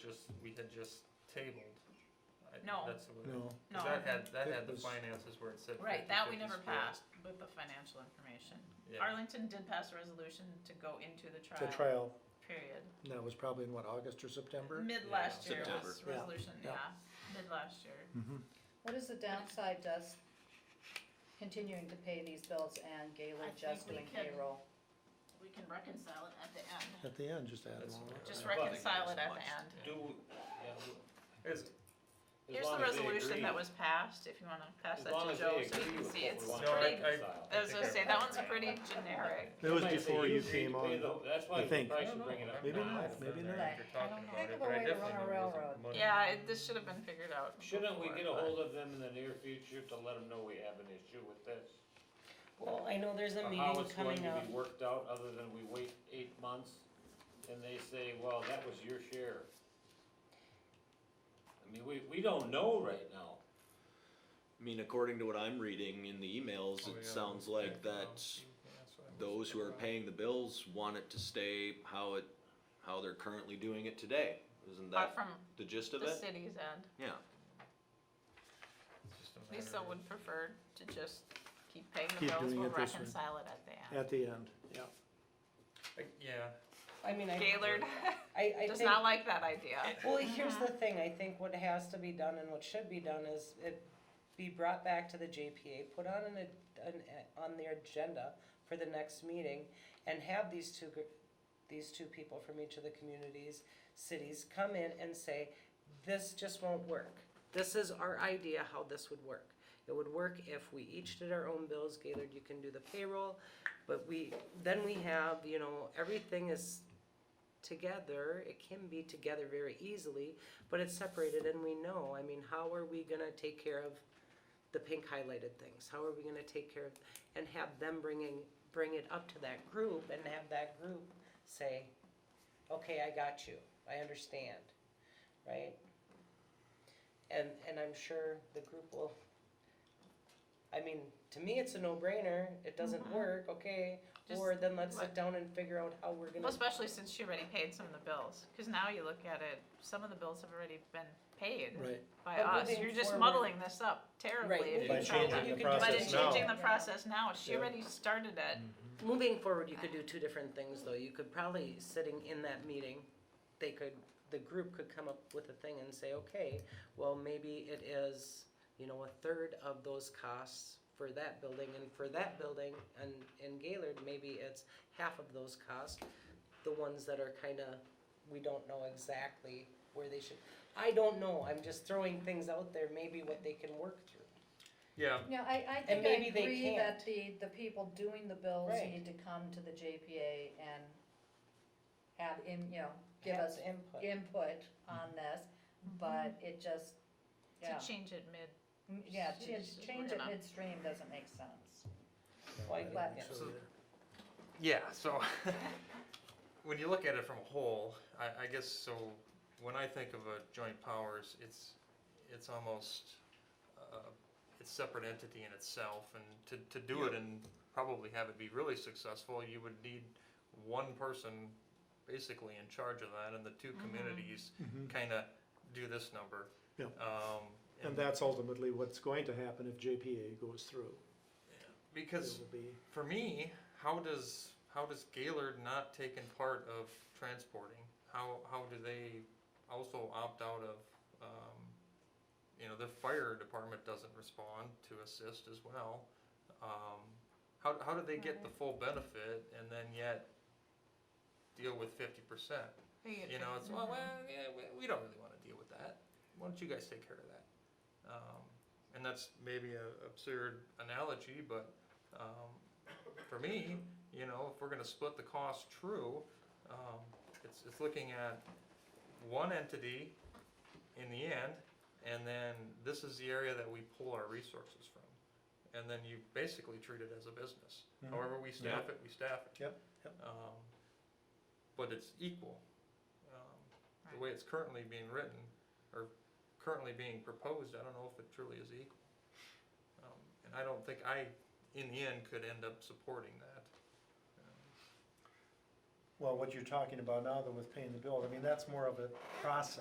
just, we had just tabled. I- No. That's the way. No, 'cause No, that had, that That had the was- finances where it said right, that we 50/50 never split. passed with the financial information. Yeah, Arlington did pass a resolution to go into the the trial, trial, period. that was probably in what, August or September? Mid Yeah. last year was September. Yeah, resolution, yeah. yeah, Hmm. mid last year. Mhm. What is the downside to us continuing to pay these bills and I Galen think just we doing can- payroll? We can reconcile it at the end. At the end, just add That's- one. Just I don't think reconcile it there's at much the end. Do, yeah, is, as Here's long the as they resolution agree- that was passed, if you wanna pass as that long to as Joe they so you agree can see with what we it's want No, I- pretty, I- reconcile. I was gonna say, that one's I- pretty generic. That was Might say before you agreed came to pay on. the- That's why I you think. probably No, should no, bring it up I'm Maybe now. not, I've maybe done that not. after I talking don't know. about Think it, of a but I way to definitely run a remember some railroad. money Yeah, before, it, this should have been figured out. Shouldn't we before, get a but- hold of them in the near future to let them know we have an issue with this? Well, I know there's a Or meeting coming How it's going up. to be worked out, other than we wait eight months and they say, well, that was your share. I mean, we, we don't know right now. I mean, according to what I'm reading in the emails, Oh, yeah. it sounds like Yeah, well, that that's what I was those who are about. paying the bills want it to stay how it, how they're currently doing it today. Isn't But that from the gist of the it? city's end, Yeah. It's just a matter Lisa of- would prefer to just keep paying the Keep bills, doing we'll it this way. reconcile it at the end. At the end, yeah. Like, Yeah, I mean, I, Gaylord I, I does think, not like that idea. well, here's the thing, I think what has to be done and what should be done is it be brought back to the JPA, put on an, a- an, a- on their agenda for the next meeting and have these two, gr- these two people from each of the communities, cities come in and say, this just won't work. This is our idea how this would work. It would work if we each did our own bills, Gaylord, you can do the payroll, but we, then we have, you know, everything is together, it can be together very easily, but it's separated and we know, I mean, how are we gonna take care of the pink highlighted things? How are we gonna take care of, and have them bringing, bring it up to that group and have that group say, okay, I got you, I understand, right? And, and I'm sure the group will, I mean, to me, it's a no-brainer, it doesn't Mhm. work, okay, Just or then let's let- sit down and figure out how we're gonna. Well, especially since she already paid some of the bills, cause now you look at it, some of the bills have already been paid Right. by But us, moving you're just forward- muddling this up terribly if Right, you By try changing to- the you can But in process now. changing the process now, she Yeah. already started it, Moving forward, you could do two different things, though. You could probably, sitting in that meeting, they could, the group could come up with a thing and say, okay, well, maybe it is, you know, a third of those costs for that building, and for that building, and in Gaylord, maybe it's half of those costs. The ones that are kinda, we don't know exactly where they should, I don't know, I'm just throwing things out there, maybe what they can work through. yeah, No, I, I think I maybe they agree that the, the people doing the bills Right. need to come to the JPA and have in, you know, give Have us input. Mm-hmm. input on this, but it just, yeah, to change it mid, Mm, yeah, change, She's- change we're it gonna- midstream doesn't make sense. Well, I can- But- yeah. So there. Yeah, so when you look at it from a whole, I, I guess so. When I think of a joint powers, it's it's almost uh, it's separate entity in itself, and to to do it and probably have it be really successful, you would need one person basically in charge of that, and the 2 Mhm. communities Mhm. kind of do this number. Yeah. Um, And that's ultimately what's going to happen if JPA goes through. It because will be, for me, how does how does Gaylord not taking part of transporting? How how do they also opt out of? Um, you know, the fire department doesn't respond to assist as well. Um, how how do they get the full benefit and then yet deal with fifty percent? You know, it's well, well yeah, we, we don't really want to deal with that. Why don't you guys take care of that? Um, and that's maybe a absurd analogy, but um, for me, you know, if we're going to split the cost true, um, it's, it's looking at one entity in the end, and then this is the area that we pull our resources from. And then you basically treat it as a business. Mhm. However we staff it, we staff it. Yep, yep. Um, but it's equal. Um, the way it's currently being written, or currently being proposed, I don't know if it truly is equal. Um, and I don't think I, in the end, could end up supporting that. well, what you're talking about now though with paying the bill, I mean, that's more of a process.